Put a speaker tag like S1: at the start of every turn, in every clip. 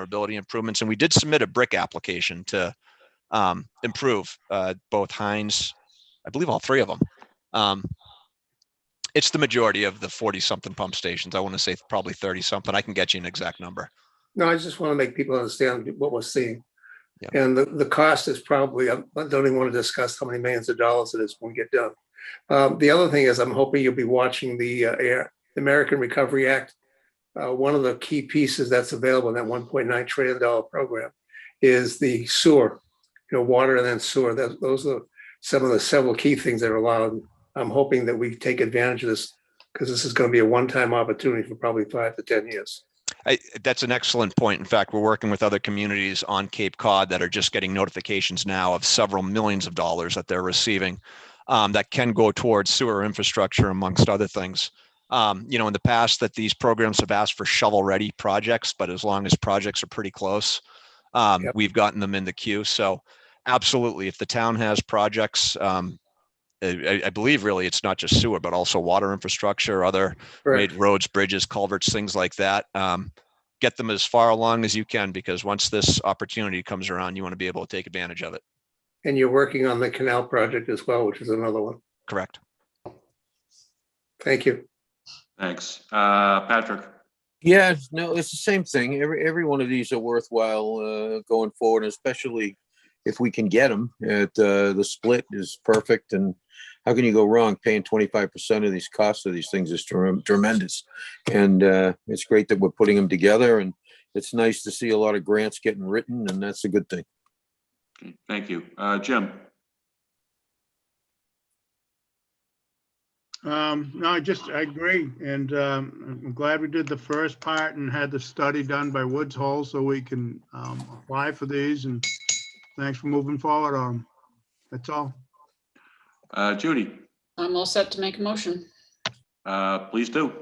S1: vulnerability improvements. And we did submit a brick application to um, improve uh, both Heinz, I believe all three of them. Um, it's the majority of the 40 something pump stations. I want to say probably 30 something. I can get you an exact number.
S2: No, I just want to make people understand what we're seeing.
S1: Yeah.
S2: And the, the cost is probably, I don't even want to discuss how many millions of dollars it is when we get done. Um, The other thing is, I'm hoping you'll be watching the uh, Air, American Recovery Act. Uh, One of the key pieces that's available in that one point nine trillion dollar program is the sewer, you know, water and then sewer. That, those are some of the several key things that are allowed. I'm hoping that we take advantage of this because this is going to be a one-time opportunity for probably five to 10 years.
S1: I, that's an excellent point. In fact, we're working with other communities on Cape Cod that are just getting notifications now of several millions of dollars that they're receiving um, that can go towards sewer infrastructure, amongst other things. Um, you know, in the past, that these programs have asked for shovel-ready projects, but as long as projects are pretty close, um,
S2: Yep.
S1: we've gotten them in the queue. So, absolutely, if the town has projects, um, I, I- I believe really it's not just sewer, but also water infrastructure, other
S2: Correct.
S1: made roads, bridges, culverts, things like that. Um, get them as far along as you can because once this opportunity comes around, you want to be able to take advantage of it.
S2: And you're working on the canal project as well, which is another one.
S1: Correct.
S2: Thank you.
S3: Thanks. Uh, Patrick,
S4: Yeah, no, it's the same thing. Every, every one of these are worthwhile uh, going forward, especially if we can get them. At, uh, the split is perfect and how can you go wrong? Paying twenty-five percent of these costs of these things is trem- tremendous. And uh, it's great that we're putting them together and it's nice to see a lot of grants getting written and that's a good thing.
S3: Okay, thank you. Uh, Jim,
S5: Um, no, I just, I agree, and, um, I'm glad we did the first part and had the study done by Woods Hole so we can, um, apply for these, and thanks for moving forward on. 'em. That's all.
S3: uh, Judy,
S6: I'm all set to make a motion.
S3: uh, please do.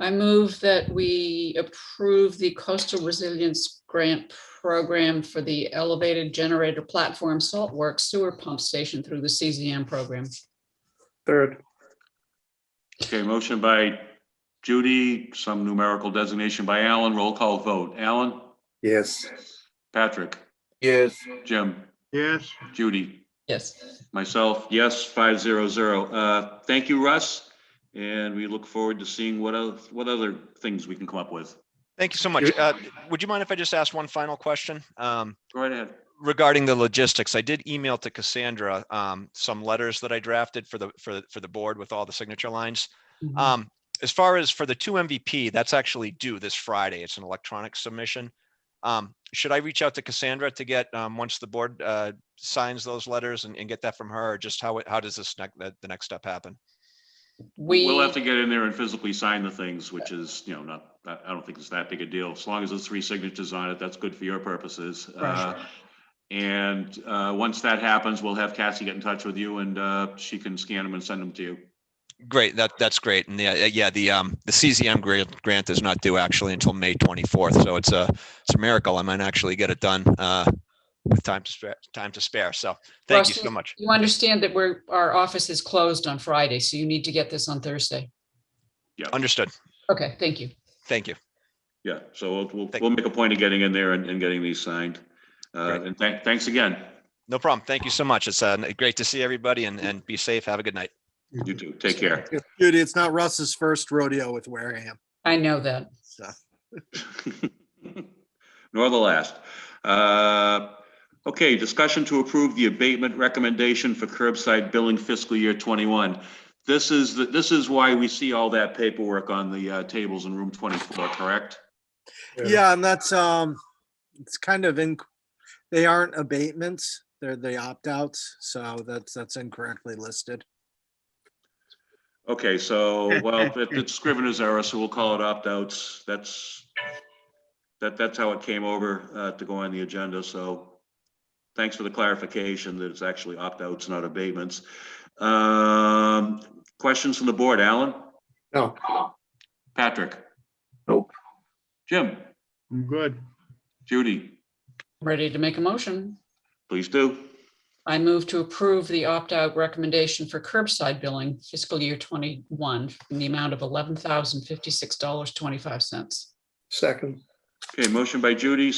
S6: I move that we approve the coastal resilience grant program for the elevated generator platform salt work sewer pump station through the CZM program.
S2: Third,
S3: Okay, motion by Judy, some numerical designation by Alan, roll call vote. Alan,
S2: yes.
S3: Patrick,
S4: Yes.
S3: Jim,
S5: Yes,
S3: Judy,
S6: Yes.
S3: myself, yes, five zero zero. Uh, thank you, Russ. And we look forward to seeing what else, what other things we can come up with.
S1: Thank you so much.
S2: You're-
S1: Uh, would you mind if I just ask one final question? Um,
S3: Go right ahead.
S1: regarding the logistics, I did email to Cassandra, um, some letters that I drafted for the, for, the- for the board with all the signature lines.
S6: Mm-hmm.
S3: Uh,
S1: Um, as far as for the two MVP, that's actually due this Friday. It's an electronic submission. Um, should I reach out to Cassandra to get, um, once the board, uh, signs those letters and, and get that from her? Or just how, it- how does this, next- the, the next step happen?
S6: We,
S3: We'll have to get in there and physically sign the things, which is, you know, not, I I don't think it's that big a deal. As long as there's three signatures on it, that's good for your purposes. Uh, And uh, once that happens, we'll have Cassie get in touch with you and uh, she can scan them and send them to you.
S1: Great, that, that's great. And yeah, yeah, the, um, the CZM grant, grant is not due actually until May 24th. So it's a, it's a miracle. I might actually get it done, uh, with time to spare, time to spare. So thank you so
S6: Russell,
S1: much.
S6: you understand that we're, our office is closed on Friday, so you need to get this on Thursday.
S1: Understood.
S6: Okay, thank you.
S1: Thank you.
S3: Yeah, so we'll- we'll,
S1: Thank-
S3: we'll make a point of getting in there and and getting these signed. Uh,
S1: Great. Mm-hmm.
S3: And thank- thanks again.
S1: No problem. Thank you so much. It's, uh, great to see everybody and, and be safe. Have a good night.
S3: You too. Take care.
S7: Judy, it's not Russ's first rodeo with Wareham.
S6: I know that.
S7: So
S3: Nor the last. Uh, Okay, discussion to approve the abatement recommendation for curbside billing fiscal year 21. This is, the- this is why we see all that paperwork on the uh, tables in room 24, correct?
S7: yeah, and that's um it's kind of in they aren't abatements, they're the opt-outs, so that's that's incorrectly listed.
S3: Okay, so, well, that- that's Scrivener's error, so we'll call it opt-outs. That's, that, that's how it came over uh, to go on the agenda, so thanks for the clarification that it's actually opt-outs, not abatements. Um, Questions from the board, Alan?
S2: No,
S3: Patrick?
S4: Nope.
S3: Jim?
S5: I'm good.
S3: Judy?
S6: Ready to make a motion?
S3: Please do.
S6: I move to approve the opt-out recommendation for curbside billing fiscal year twenty-one in the amount of eleven thousand fifty-six dollars twenty-five cents.
S2: second,
S3: Okay, motion by Judy,